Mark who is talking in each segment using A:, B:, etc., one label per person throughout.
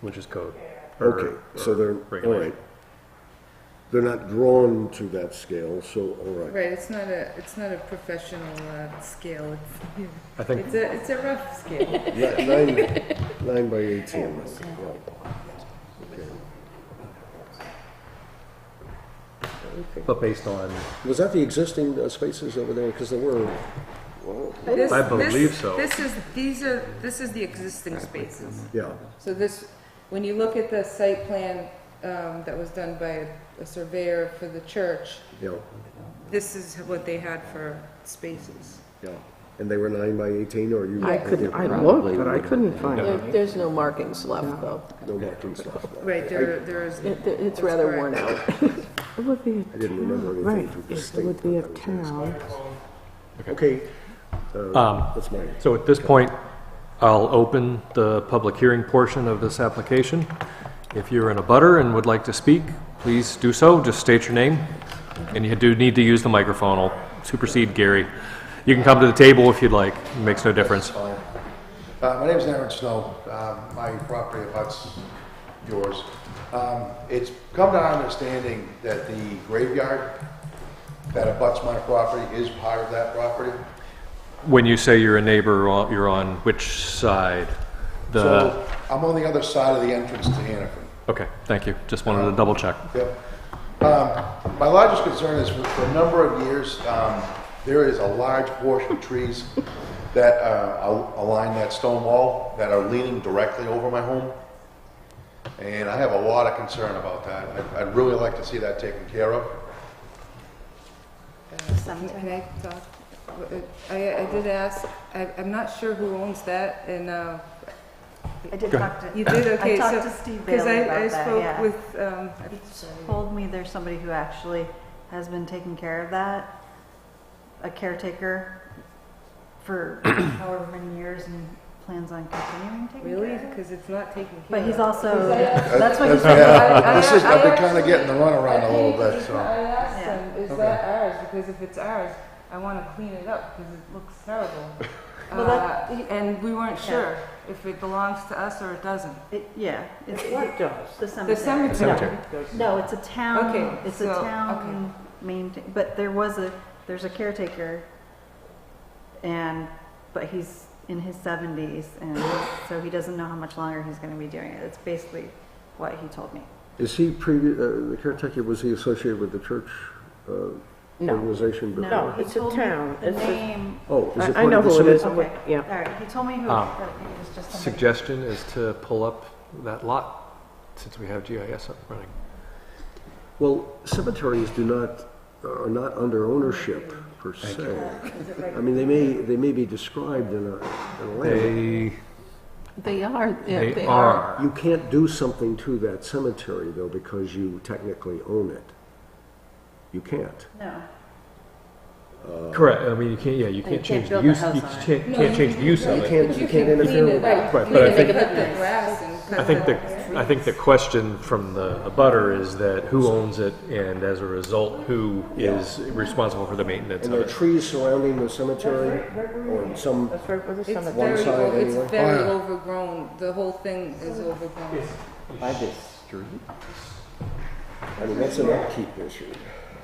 A: which is code. or-
B: Okay, so they're, all
A: regulation.
B: right. They're not drawn to that scale, so, all right.
C: Right, it's not a, it's not a professional uh, scale, it's,
A: I think-
C: it's a, it's a rough scale.
B: Ni- Nine, nine by 18, right, right.
A: But based on,
B: Was that the existing uh, spaces over there? Because there were, well,
C: This-
A: I
C: this-
A: believe so.
C: This is, these are, this is the existing spaces.
B: yeah,
C: So this, when you look at the site plan um, that was done by a surveyor for the church,
B: yeah,
C: this is what they had for spaces.
B: yeah. And they were nine by 18, or you?
D: I couldn't, I looked,
E: Probably
D: but I
E: would've
D: couldn't find
E: been-
D: it.
F: There- There's no markings left, though.
B: No markings left.
C: Right, there, there is.
F: It- It's
C: that's
F: rather
C: correct.
F: worn out.
D: It would be a
B: I didn't remember
D: town,
B: anything
D: right,
B: from the
D: yes, it
B: state
D: would be a
B: that was in
D: town.
B: Okay, uh, that's mine.
A: so at this point, I'll open the public hearing portion of this application. If you're in a butter and would like to speak, please do so, just state your name. And you do need to use the microphone, I'll supersede Gary. You can come to the table if you'd like, it makes no difference.
G: Uh, My name is Aaron Snow. Um, My property abuts yours. Um, It's come to our understanding that the graveyard that abuts my property is part of that property.
A: When you say you're a neighbor, you're on which side? The,
G: So I'm on the other side of the entrance to Hannaford.
A: okay, thank you, just wanted to double check.
G: Yep. Um, My largest concern is for for a number of years, um, there is a large portion of trees that uh, al- align that stone wall that are leaning directly over my home. And I have a lot of concern about that. I'd- I'd really like to see that taken care of.
C: Can Um, I talk? I, I did ask, I, I'm not sure who owns that and, uh,
H: I did talk to.
C: you did, okay, so.
H: I talked to Steve Bailey
C: Cause I, I
H: about that,
C: spoke
H: yeah.
C: with, um, I
H: He told me there's somebody who actually has been taking care of that, a caretaker for however many years and plans on continuing taking care
C: Really?
H: of it.
C: Because it's not taking care
H: But he's
C: of.
H: also, that's what he's.
C: I- I-
G: This is, I've been
C: I-
G: kind of getting the runaround a little
C: I- I
G: bit, so.
C: asked him, is
G: Okay.
C: that ours? Because if it's ours, I want to clean it up because it looks terrible.
H: Well, that-
C: Uh, And we weren't sure if it belongs to us or it doesn't.
H: It- Yeah, it's
D: What does?
H: the
C: The
H: cemetery.
C: cemetery.
H: No, it's a town,
C: Okay,
H: it's a
C: so-
H: town maintain, but there was a, there's a caretaker and, but he's in his seventies and so he doesn't know how much longer he's gonna be doing it. It's basically what he told me.
B: Is he previous, the caretaker, was he associated with the church uh,
D: No.
B: organization? before?
D: No,
H: he
D: it's a
H: told me
D: town.
H: The
D: It's a-
H: name,
B: Oh, is it?
D: I I know
B: part of the
D: who it is,
B: cemetery?
D: and what-
H: all
D: yeah.
H: right, he told me who,
A: Um,
H: but it was just somebody.
A: Suggestion is to pull up that lot, since we have GIS up running.
B: Well, cemeteries do not, are not under ownership per se. I mean, they may, they may be described in a, in a land.
A: They,
F: They are, yeah,
A: they are.
B: You can't do something to that cemetery though because you technically own it. You can't.
H: No,
A: Correct, I mean, you can't, yeah, you can't change the
F: build a
A: use,
F: house
A: you
F: on it.
A: can't, can't change the use of
B: You
A: it.
B: can't, you can't interfere with
C: Right,
B: that.
A: Right,
C: you
A: but I
C: can
A: think-
C: cut the grass and cut
A: I think
C: the-
A: the, I think the question from the abutter is that who owns it, and as a result, who is responsible for the maintenance
B: And
A: of
B: there are
A: it?
B: trees surrounding the cemetery on some,
D: That's right where the
C: It's
D: cemetery.
C: very,
B: side
C: o- it's
B: anyway.
G: Oh,
C: very overgrown. The whole thing is overgrown.
E: By this street?
B: I mean, that's an upkeep issue.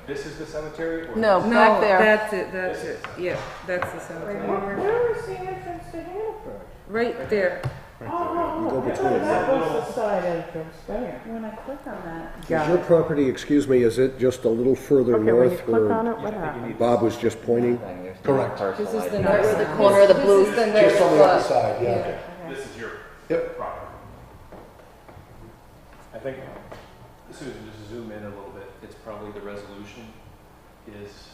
A: This is the cemetery?
F: No,
C: No,
F: back there.
C: that's it, that's it. Yeah, that's the cemetery.
D: Where is the entrance to Hannaford?
C: Right there.
B: You
D: Oh,
B: go between them.
D: That was the side entrance there.
H: when I click on that,
B: Is your property, excuse me, is it just a little further
D: Okay, when you
B: north
D: click on
B: where
D: it, what happens?
B: Bob was just pointing?
E: Correct.
C: This is the
F: Right
C: next
F: where the
C: one.
F: corner of the blue.
C: This is the next
G: Just on the other
C: one.
G: side, yeah.
A: This is your
G: Yep.
A: property. I think, Susan, just zoom in a little bit, it's probably the resolution is,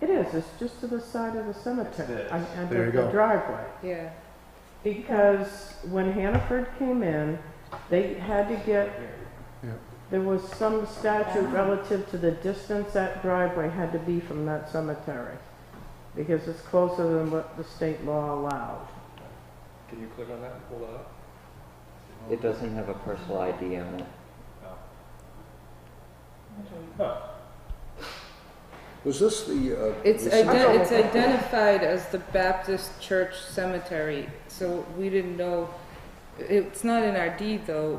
D: It is, it's just to the side of the cemetery,
A: It's
D: I-
A: this.
D: I-
G: There you
D: the
G: go.
D: driveway.
C: Yeah.
D: Because when Hannaford came in, they had to get,
G: Yeah.
D: there was some statute relative to the distance that driveway had to be from that cemetery. Because it's closer than what the state law allowed.
A: can you click on that and pull that up?
E: It doesn't have a parcel ID on it.
B: Was this the, uh?
C: It's,
B: the
C: iden-
B: cemetery?
C: it's identified as the Baptist Church Cemetery, so we didn't know, it's not in our deed though,